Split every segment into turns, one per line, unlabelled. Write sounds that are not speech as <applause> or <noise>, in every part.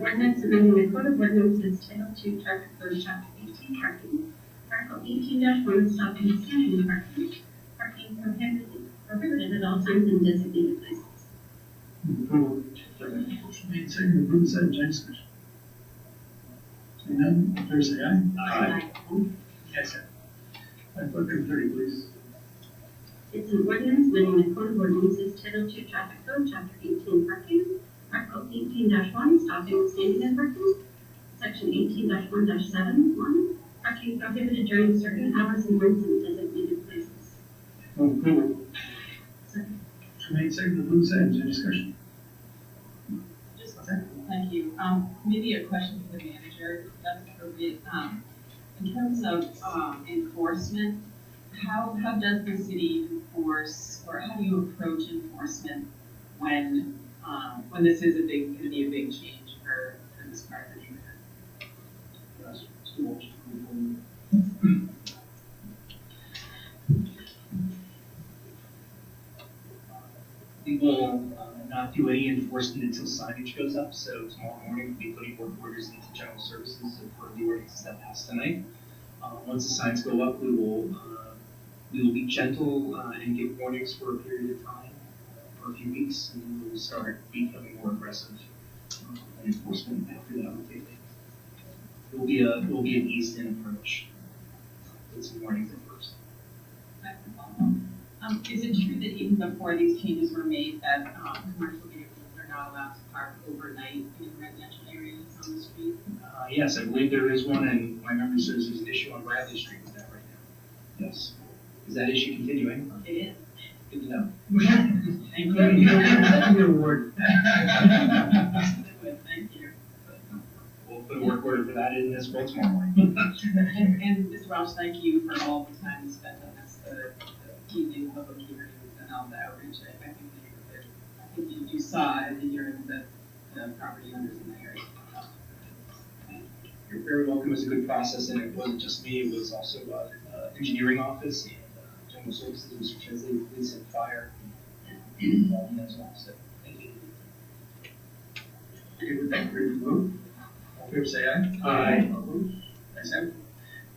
ordinance amending the code of ordinances title two, traffic code, chapter eighteen, E parking. Article eighteen one, stopping and standing parking. Parking prohibited, prohibited at all times in designated places.
Approved. Second. Motion made, second, approved, second, any discussion? Seeing none, all in favor say aye. Opposed? Yes, sir. Item thirteen thirty, please.
It's an ordinance amending the code of ordinances title two, traffic code, chapter eighteen, parking. Article eighteen one, stopping and standing and parking. Section eighteen one seven, one, parking prohibited during certain hours and months in designated places.
Move approval.
Second.
Motion made, second, approved, second, any discussion?
Just, thank you. Um, maybe a question for the manager, if that's appropriate. Um, in terms of, um, enforcement, how, how does the city enforce, or how do you approach enforcement when, um, when this is a big, gonna be a big change for, for this part of the neighborhood?
Yes. So motion approved.
We will uh, not do any enforcement until signage goes up, so tomorrow morning we'll be putting work orders into general services for the ordinances that passed tonight. Uh, Once the signs go up, we will, uh, we will be gentle uh, and give warnings for a period of time, uh, for a few weeks, and then we'll start becoming more aggressive uh, in enforcement after that. we think. It will be a, it will be an eased-in approach. It's warnings at first.
That's the problem. Um, is it true that even before these changes were made, that, um, commercial vehicles are not allowed to park overnight in residential areas on the street?
Uh, yes, I believe there is one, and my memory says there's an issue on Bradley Street with that right now. Yes. Is that issue continuing?
It is. <laughs>
Good to know.
Thank
Your word.
Thank you.
We'll put a work order for that in as well tomorrow morning.
And, and Ms. Welch, thank you for all the time you spent on this, the, the evening public hearings and all the outreach. I, I think you, did- I think you, you saw it in your, the, the property owners in the area.
You're very welcome. It was a good process, and it wasn't just me, it was also, uh, uh, engineering office and, uh, general services, Mr. Chesley, police and fire. and uh, all in that as well, so, thank you.
Okay, with that, ready to vote? All in favor say aye.
Aye.
Opposed? Ayes have it.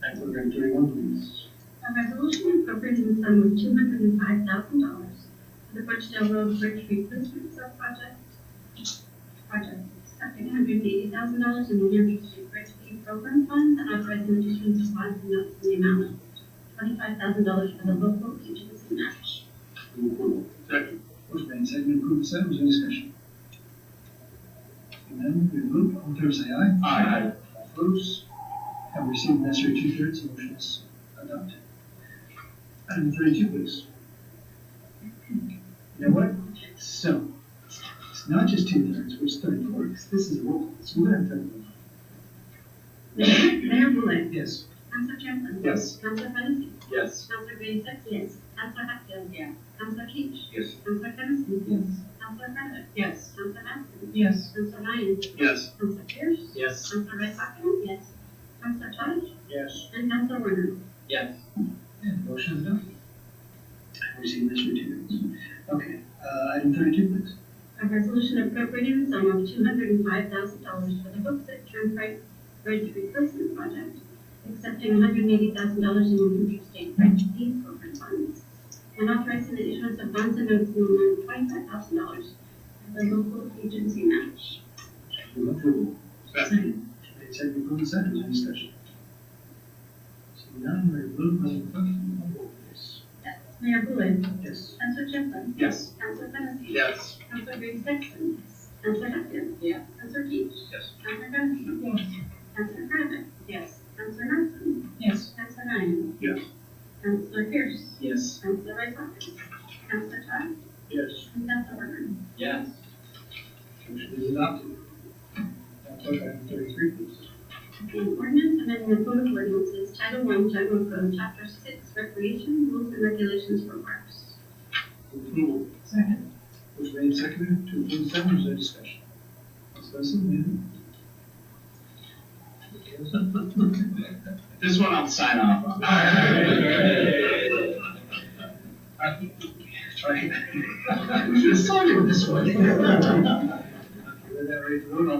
Item thirteen thirty-one, please.
A resolution appropriating the sum of two hundred and five thousand dollars for the Birchdale Road Bridge Replacement Subproject. Project, accepting hundred and eighty thousand dollars in the New York State Bridge Aid Program Fund and authorizing additional response notes in the amount of twenty-five thousand dollars for the local agency match.
Move approval. Second. Motion made, second, approved, second, any discussion? And then we vote, all in favor say aye.
Aye.
All Opposed? Have received necessary two-thirds, the motion is adopted. Item thirty-two, please. You know what? So, it's not just two-thirds, it's thirty-four, because this is a roll call, so we're gonna have to.
Mayor, Mayor Bullock.
Yes.
Counselor Champlin.
Yes.
Counselor Fennessy.
Yes.
Counselor Grayson. Yes. Counselor Hatfield.
Yeah.
Counselor Keach.
Yes.
Counselor Kennison.
Yes.
Counselor Credit.
Yes.
Counselor Matson.
Yes.
Counselor Ryan.
Yes.
Counselor Pierce.
Yes.
Counselor Redpacker? Yes. Counselor Todd?
Yes.
And Counselor Warner?
Yes.
And motion is adopted. Have received necessary two-thirds. Okay, uh, item thirty-two, please.
A resolution appropriating the sum of two hundred and five thousand dollars for the Hooksett Turnpike Bridge Replacement Project, accepting one hundred and eighty thousand dollars in New Hampshire State Bridge Aid Program funds, and authorizing the issuance of bonds and notes in the amount of twenty-five thousand dollars as a local agency match.
Move approval. Second. Made second, approved, second, any discussion? Seeing none, we vote, Madam Clerk, roll call, please.
Mayor Bullock?
Yes.
Counselor Champlin?
Yes.
Counselor Fennessy?
Yes.
Counselor Green Sexton? Counselor Hatfield?
Yeah.
Counselor Keach?
Yes.
Counselor Gunnison? Yes. Counselor Kravitz?
Yes.
Counselor Matson?
Yes.
Counselor Ryan?
Yes.
Counselor Pierce?
Yes.
Counselor Redpacker? Counselor Todd?
Yes.
And Counselor Warner?
Yes.
Motion is adopted. Now, clerk, item thirty-three, please.
An ordinance amending the code of ordinances, Title One, General Code, Chapter Six, Recreation Rules and Regulations for Parks.
Move approval.
Second.
Motion made second, to approve second, is there discussion? Ms. Benson,
<laughs> This one I'll sign off on. <laughs> Try. <laughs>
<laughs> yeah? You should have started with this one. With that, ready to vote, all in